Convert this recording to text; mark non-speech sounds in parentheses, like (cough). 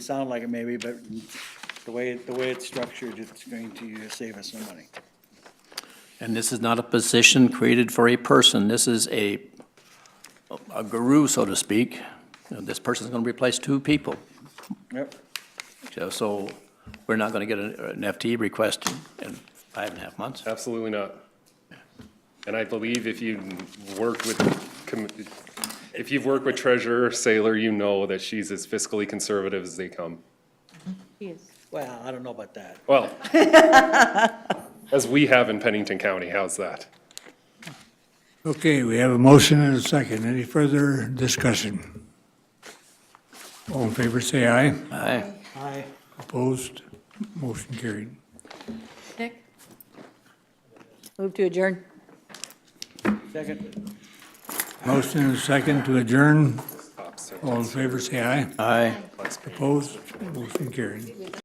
sound like it maybe, but the way, the way it's structured, it's going to save us some money. And this is not a position created for a person, this is a, a guru, so to speak. You know, This person's gonna replace two people, Yep. So- so we're not gonna get an an FTE request in five and a half months. Absolutely not. And I believe if you work with, com- if you've worked with Treasurer Sailor, you know that she's as fiscally conservative as they come. Yes. Well, I don't know about that. Well, (laughs) as we have in Pennington County, how's that? Okay, we have a motion and a second. Any further discussion? All in favor, say aye. Aye. Aye. Opposed? Motion carried. Nick? Move to adjourn. Second. Motion and a second to adjourn. Stop, sir. All in favor, say aye. Aye. Opposed? Motion carried.